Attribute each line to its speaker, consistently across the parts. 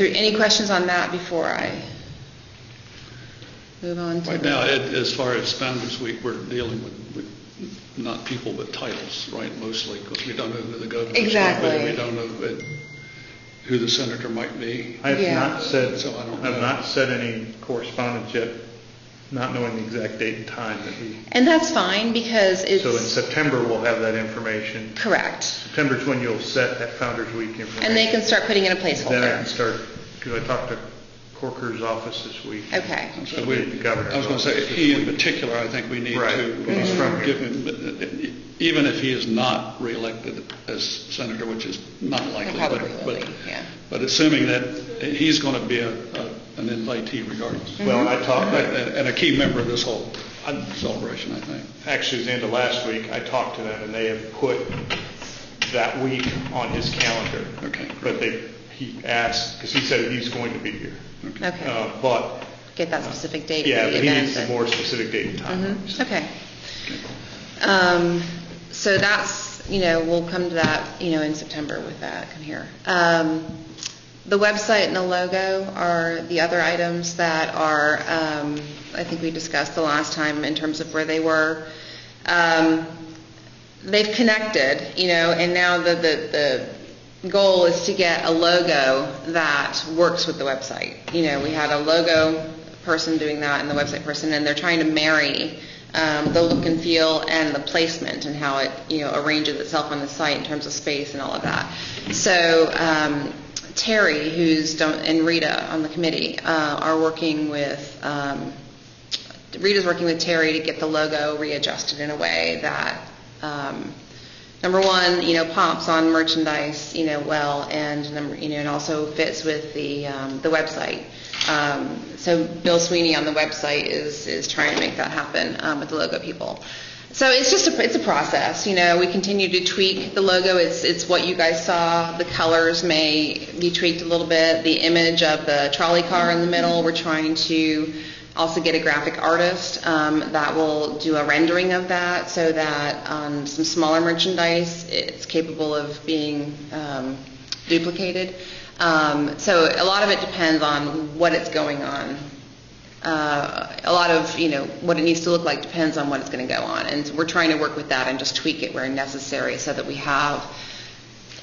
Speaker 1: there any questions on that before I move on to?
Speaker 2: Right now, it- as far as Founder's Week, we're dealing with, with not people, but titles, right, mostly, because we don't know who the governor's going to
Speaker 1: Exactly.
Speaker 2: be. We don't know who- who the senator might be.
Speaker 3: I have
Speaker 1: Yeah.
Speaker 3: not said,
Speaker 2: So I don't
Speaker 3: I have
Speaker 2: know.
Speaker 3: not said any correspondence yet, not knowing the exact date and time that we,
Speaker 1: And that's fine because
Speaker 3: so in
Speaker 1: it's,
Speaker 3: September, we'll have that information.
Speaker 1: correct.
Speaker 3: September's when you'll set that Founder's Week information.
Speaker 1: And they can start putting in a
Speaker 3: Then I
Speaker 1: placeholder.
Speaker 3: can start, because I talked to Corker's office this week.
Speaker 1: Okay.
Speaker 3: So we, the governor.
Speaker 2: I was going to say, he in particular, I think we need
Speaker 3: Right.
Speaker 2: to.
Speaker 3: He's
Speaker 2: uh,
Speaker 3: from here.
Speaker 2: give him- uh, Even if he is not reelected as senator, which is not likely. but-
Speaker 1: Probably will
Speaker 2: but-
Speaker 1: be, yeah.
Speaker 2: But assuming that he's going to be a, a- an invitee regardless,
Speaker 3: Well, I talked,
Speaker 2: and and a key member of this whole celebration, I think.
Speaker 3: actually, it was the end of last week, I talked to them, and they have put that week on his calendar.
Speaker 2: Okay.
Speaker 3: But they, he asked, because he said he's going to be here.
Speaker 1: Okay,
Speaker 3: Uh, But,
Speaker 1: get that specific date
Speaker 3: yeah,
Speaker 1: for the
Speaker 3: but he
Speaker 1: event.
Speaker 3: needs a
Speaker 1: and-
Speaker 3: more specific date and time.
Speaker 1: Mhm, Okay. Um, So that's, you know, we'll come to that, you know, in September with that, come here. Um, The website and the logo are the other items that are, um, I think we discussed the last time in terms of where they were. Um, They've connected, you know, and now the, the, the goal is to get a logo that works with the website. You know, we had a logo person doing that and the website person, and they're trying to marry um, the look and feel and the placement and how it, you know, arranges itself on the site in terms of space and all of that. So um, Terry, who's, done- and Rita on the committee, uh, are working with, um, Rita's working with Terry to get the logo readjusted in a way that, um, number one, you know, pops on merchandise, you know, well, and number, you know, and also fits with the, um, the website. Um, so Bill Sweeney on the website is, is trying to make that happen, um, with the logo people. So it's just, a it's a process, you know, we continue to tweak the logo, it's, it's what you guys saw, the colors may be tweaked a little bit, the image of the trolley car in the middle, we're trying to also get a graphic artist um, that will do a rendering of that so that on some smaller merchandise, it's capable of being um, duplicated. Um, So a lot of it depends on what it's going on uh, a lot of, you know, what it needs to look like depends on what it's going to go on. And we're trying to work with that and just tweak it where necessary so that we have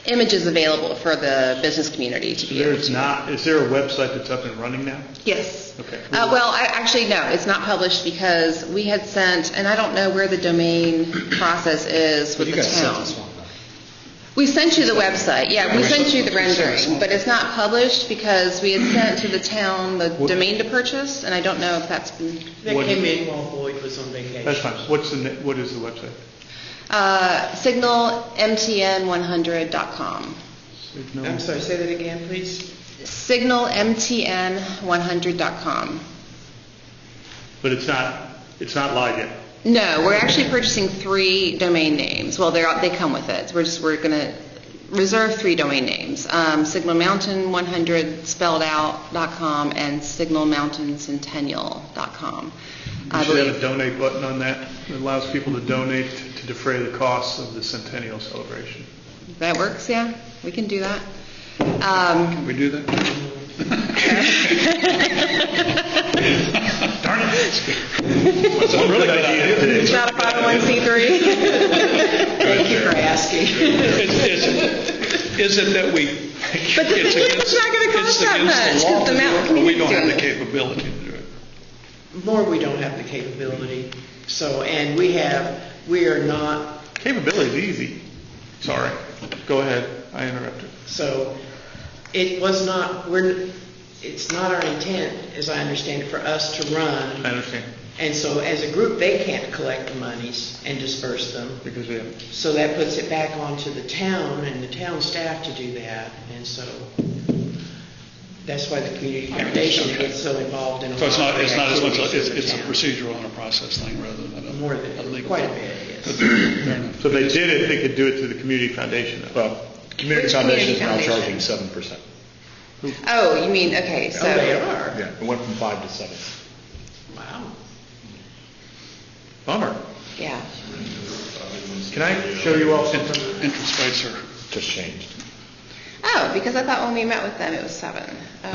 Speaker 1: images available for the business community to be able
Speaker 3: There's
Speaker 1: to.
Speaker 3: not, is there a website that's up and running now?
Speaker 1: Yes.
Speaker 3: Okay.
Speaker 1: Uh, Well, I- actually, no, it's not published because we had sent, and I don't know where the domain process is with
Speaker 4: You
Speaker 1: the
Speaker 4: guys sent
Speaker 1: town.
Speaker 4: this one, though.
Speaker 1: We sent you the website, yeah, we sent you the rendering, but it's not published because we had sent to the town the domain to purchase, and I don't know if that's been,
Speaker 5: That
Speaker 3: What-
Speaker 5: came in while Boyd was on vacation.
Speaker 3: That's fine. What's the, ne- what is the website?
Speaker 1: Uh, signalmtn100.com.
Speaker 3: Signal-
Speaker 5: I'm sorry, say that again, please.
Speaker 1: Signalmtn100.com.
Speaker 3: But it's not, it's not live yet.
Speaker 1: No, we're actually purchasing three domain names. Well, they're, they come with it. We're just, we're going to reserve three domain names. Um, Signal Mountain 100 spelled out dot com and Signal Mountain Centennial dot com.
Speaker 3: We
Speaker 1: I
Speaker 3: should have a
Speaker 1: believe,
Speaker 3: donate button on that that allows people to donate to defray the costs of the centennial celebration.
Speaker 1: that works, yeah? We can do that. Um,
Speaker 2: We do that?
Speaker 3: Darn it.
Speaker 2: That's a really good idea.
Speaker 1: It's not a 501c3. Thank you for asking.
Speaker 2: Is is it that we,
Speaker 1: But the
Speaker 2: it's
Speaker 1: thing is,
Speaker 2: against,
Speaker 1: it's not gonna
Speaker 2: it's
Speaker 1: cost that much,
Speaker 2: against the law,
Speaker 1: 'cause the mountain
Speaker 2: to do it, but we
Speaker 1: community's
Speaker 2: don't have the
Speaker 1: doing
Speaker 2: capability to do it.
Speaker 5: More, we don't have the capability, so, and we have, we are not,
Speaker 3: Capability is easy. Sorry. Go ahead. I interrupted.
Speaker 5: so it was not, we're, it's not our intent, as I understand it, for us to
Speaker 3: I
Speaker 5: run.
Speaker 3: understand
Speaker 5: And so as a group, they can't collect the monies and disperse them.
Speaker 3: because we have,
Speaker 5: So that puts it back onto the town and the town staff to do that, and so that's why the community foundation gets so involved in a lot
Speaker 2: So it's
Speaker 5: of
Speaker 2: not, it's not as much,
Speaker 5: activities
Speaker 2: a- it's it's a
Speaker 5: for the town.
Speaker 2: procedural and a process thing rather than a
Speaker 5: More
Speaker 2: a
Speaker 5: than,
Speaker 2: legal.
Speaker 5: quite a bit, yes.
Speaker 3: so if they did it, they could do it through the community foundation. though.
Speaker 4: Well, Community
Speaker 1: Which
Speaker 4: Foundation
Speaker 1: community
Speaker 4: is now
Speaker 1: foundation?
Speaker 4: charging seven percent.
Speaker 1: Oh, you mean, okay, so.
Speaker 5: Oh, they are?
Speaker 4: Yeah, it went from five to seven.
Speaker 5: Wow.
Speaker 3: Bummer.
Speaker 1: Yeah.
Speaker 3: Can I show you all something?
Speaker 2: Interest rates are,
Speaker 4: Just changed.
Speaker 1: Oh, because I thought when we met with them, it was seven. Oh.